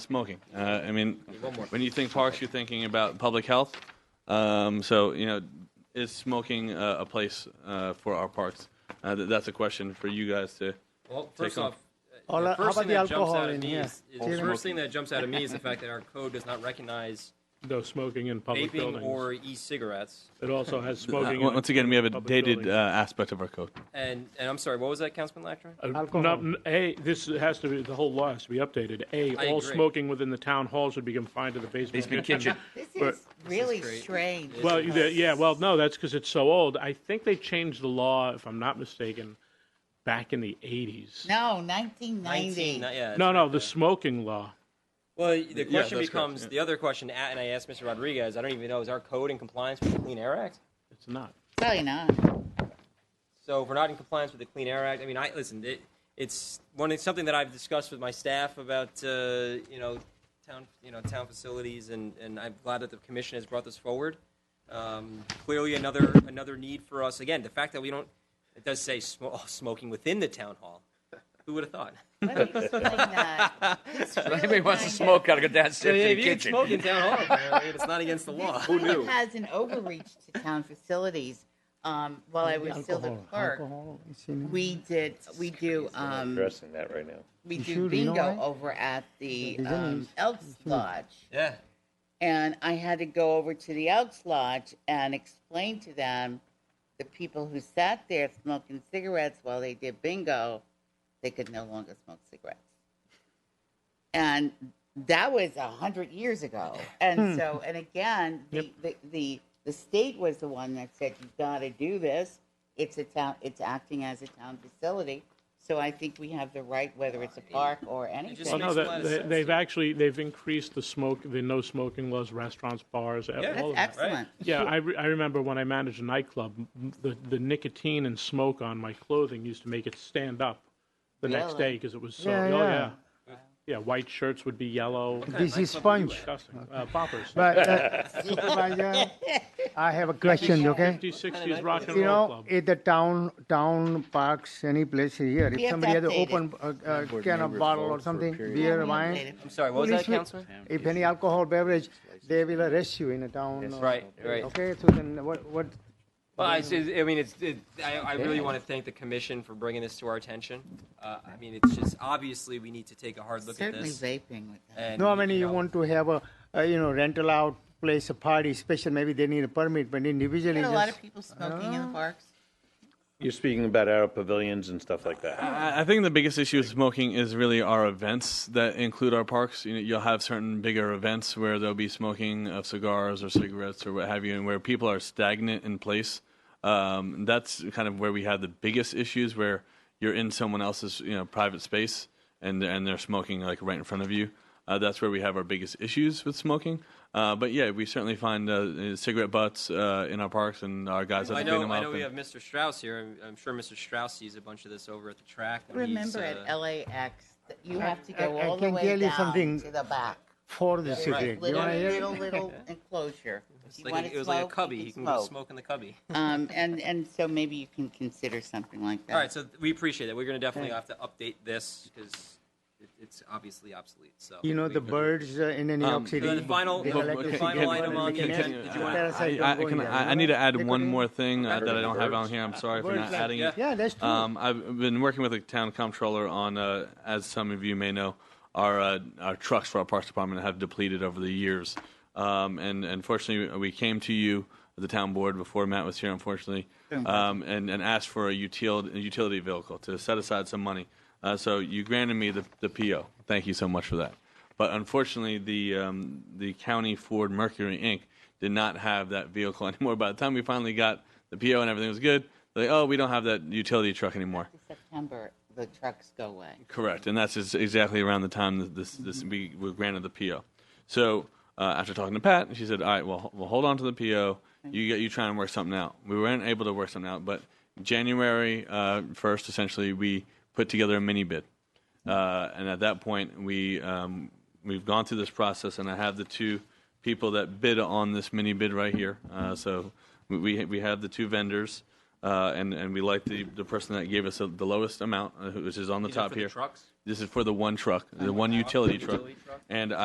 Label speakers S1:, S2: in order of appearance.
S1: smoking. Uh, I mean, when you think parks, you're thinking about public health. Um, so you know, is smoking a, a place uh, for our parks? Uh, th- that's a question for you guys to.
S2: Well, first
S1: Take
S2: off,
S3: All
S2: the
S3: that- how
S2: first thing
S3: about
S2: that
S3: the
S2: jumps
S3: alcohol
S2: out at
S3: in
S2: me
S3: here?
S2: is, is the
S3: Smoking.
S2: first thing that jumps out at me is the fact that our code does not recognize
S4: No smoking in public
S2: vaping or
S4: buildings.
S2: e-cigaronce.
S4: It also has
S1: Uh,
S4: smoking. in
S1: once again, we have a
S4: public
S1: dated uh,
S4: buildings.
S1: aspect of our code.
S2: And and I'm sorry, what was that, Councilman Lactron?
S4: Uh,
S3: Alcohol.
S4: not- n- A, this has to be, the whole law has to be updated. A,
S2: I
S4: all
S2: agree.
S4: smoking within the town hall should be confined to the basement.
S1: Basement kitchen.
S5: This
S4: But-
S5: is really
S2: great.
S5: strange.
S4: Well, the- yeah, well, no, that's because it's so old. I think they changed the law, if I'm not mistaken, back in the 80s.
S5: No, 1990.
S2: Nineteen, yeah. it's
S4: No,
S2: right
S4: no,
S2: there.
S4: the smoking law.
S2: Well, the question
S1: that's correct,
S2: becomes
S1: yeah.
S2: the other question, a- and I asked Mr. Rodriguez. I don't even know is our code in compliance with the Clean Air Act.
S4: It's not.
S5: Probably not.
S2: So if we're not in compliance with the Clean Air Act, I mean, I listen. It, it's one it's something that I've discussed with my staff about uh, you know town you know town facilities, and, and I'm glad that the commission has brought this forward. Um, clearly, another another need for us. Again, the fact that we don't it does say sm- oh, smoking within the town hall. Who would have thought?
S5: Let me explain that. It's really
S6: Anybody wants to
S5: kind
S6: smoke, gotta go downstairs to the
S2: you
S6: kitchen.
S2: smoke in town hall, apparently, and it's not against the law.
S5: of- This really has an overreach to town facilities. Um, while I was still the
S3: Alcohol,
S5: clerk,
S3: alcohol, it's in-
S5: we did, we do, um,
S7: addressing that right now.
S5: we
S3: You
S5: do
S3: sure you know
S5: bingo
S3: why?
S5: over at the,
S3: There's any-
S5: um, Elks Lodge.
S2: Yeah.
S5: And I had to go over to the Elks Lodge and explain to them the people who sat there smoking cigarettes while they did bingo, they could no longer smoke cigarettes. And that was a hundred years ago. And so, and again, the, the, the, the state was the one that said, you gotta do this. It's a town, it's acting as a town facility. So I think we have the right, whether it's a park or
S2: just
S4: Well,
S5: anything.
S4: no,
S2: makes a lot
S4: that-
S2: of
S4: they-
S2: sense.
S4: they've actually, they've increased the smoke, the no smoking laws, restaurants, bars, all
S2: That's
S4: of
S5: That's
S4: that.
S5: excellent.
S4: Yeah, I, re- I remember when I managed a nightclub, m- the, the nicotine and smoke on my clothing used to make it stand up the next
S5: Really?
S4: day because it was so.
S3: Yeah,
S4: oh,
S3: yeah.
S4: yeah. Yeah, white shirts would be yellow.
S3: This is sponge.
S4: Disgusting. Uh, poppers.
S3: But uh, Supervisor, I have a question, okay?
S4: 50s, 60s rock and
S3: You know,
S4: roll club.
S3: if the town, town parks, any place here,
S5: We have
S3: if
S5: to
S3: somebody has an
S5: update it.
S3: open uh, uh, can of bottle or something, beer, wine,
S2: I'm sorry. What was that,
S3: Policeman-
S2: Councilman?
S3: if any alcohol beverage, they will arrest you in a town. uh,
S2: Right. Right.
S3: Okay, so then what, what,
S2: Well, I, see- I mean, it's, it, I, I really want to thank the commission for bringing this to our attention. Uh, I mean, it's just, obviously, we need to take a hard look at
S5: Certainly
S2: this.
S5: vaping with that.
S2: and,
S3: no, I mean, you
S2: know,
S3: want to have a, uh, you know, rental out, place a party, special, maybe they need a permit, but individually
S5: There
S3: just. uh,
S5: are a lot of people smoking in the parks.
S7: You're speaking about our pavilions and stuff like that.
S1: I I think the biggest issue with smoking is really our events that include our parks. You know, you'll have certain bigger events where there'll be smoking of cigars or cigarettes or what have you, and where people are stagnant in place. Um, and that's kind of where we have the biggest issues, where you're in someone else's you know private space and and they're smoking like right in front of you. Uh, that's where we have our biggest issues with smoking. Uh, but yeah, we certainly find uh, cigarette butts uh, in our parks, and our guys have to
S2: I
S1: clean
S2: know,
S1: them
S2: I
S1: up.
S2: know we
S1: and-
S2: have Mr. Strauss here. I'm, I'm sure Mr. Strauss sees a bunch of this over at the track. when he's,
S5: Remember at
S2: uh,
S5: LAX, that you have to
S3: I-
S5: go
S3: I
S5: all the
S3: can
S5: way
S3: tell you
S5: down
S3: something.
S5: to the back.
S3: For the
S5: There's
S3: cigarette, you
S5: Little,
S3: wanna hear?
S5: little, little enclosure. If you
S2: It's like,
S5: wanna
S2: a- it was like a
S5: smoke,
S2: cubby.
S5: you
S2: He can go
S5: smoke.
S2: smoke in the cubby.
S5: Um, and, and so maybe you can consider something like that.
S2: All right, so we appreciate that. We're going to definitely have to update this because it, it's obviously obsolete, so.
S3: You know,
S2: we-
S3: the birds uh, in uh, New
S1: Um,
S3: York City.
S2: So the final,
S3: they
S2: the-
S3: collect
S1: Well,
S2: the
S3: the
S2: final
S3: cigarette
S2: item
S3: butt
S2: on
S3: and
S2: the
S3: they can
S2: agenda,
S3: have-
S2: did you want?
S3: Parasite
S1: I,
S3: don't
S1: I,
S3: go in
S1: can,
S3: there,
S1: I, I
S3: you
S1: need
S3: know?
S1: to add
S3: They
S1: one
S3: couldn't-
S1: more thing uh,
S7: Birds
S1: that I
S7: like
S1: don't have on
S7: birds.
S1: here. I'm sorry for
S3: Birds
S1: not
S3: like-
S1: adding it.
S3: Yeah, that's true.
S1: Um, I've been working with the town comptroller on, uh, as some of you may know, our uh, our trucks for our parks department have depleted over the years, um, and unfortunately we came to you, the town board, before Matt was here, unfortunately, um, and and asked for a utility a utility vehicle to set aside some money. Uh, so you granted me the, the PO. Thank you so much for that. But unfortunately, the um, the county Ford Mercury Inc. did not have that vehicle anymore. By the time we finally got the PO and everything was good, they're like, oh, we don't have that utility truck anymore.
S5: September, the trucks go away.
S1: Correct, and that's just exactly around the time that this this we were granted the PO. So uh, after talking to Pat, she said, "All right, well, h- we'll hold on to the PO. You get you try and work something out." We weren't able to work something out, but January uh, first, essentially, we put together a mini bid, uh, and at that point, we um, we've gone through this process, and I have the two people that bid on this mini bid right here. Uh, so we- we we have the two vendors. uh, and and we like the, the person that gave us the the lowest amount, uh, which is on the
S2: These are
S1: top
S2: for the
S1: here.
S2: trucks?
S1: This is for the one truck, the one utility
S2: the
S1: truck,
S2: utility truck?
S1: and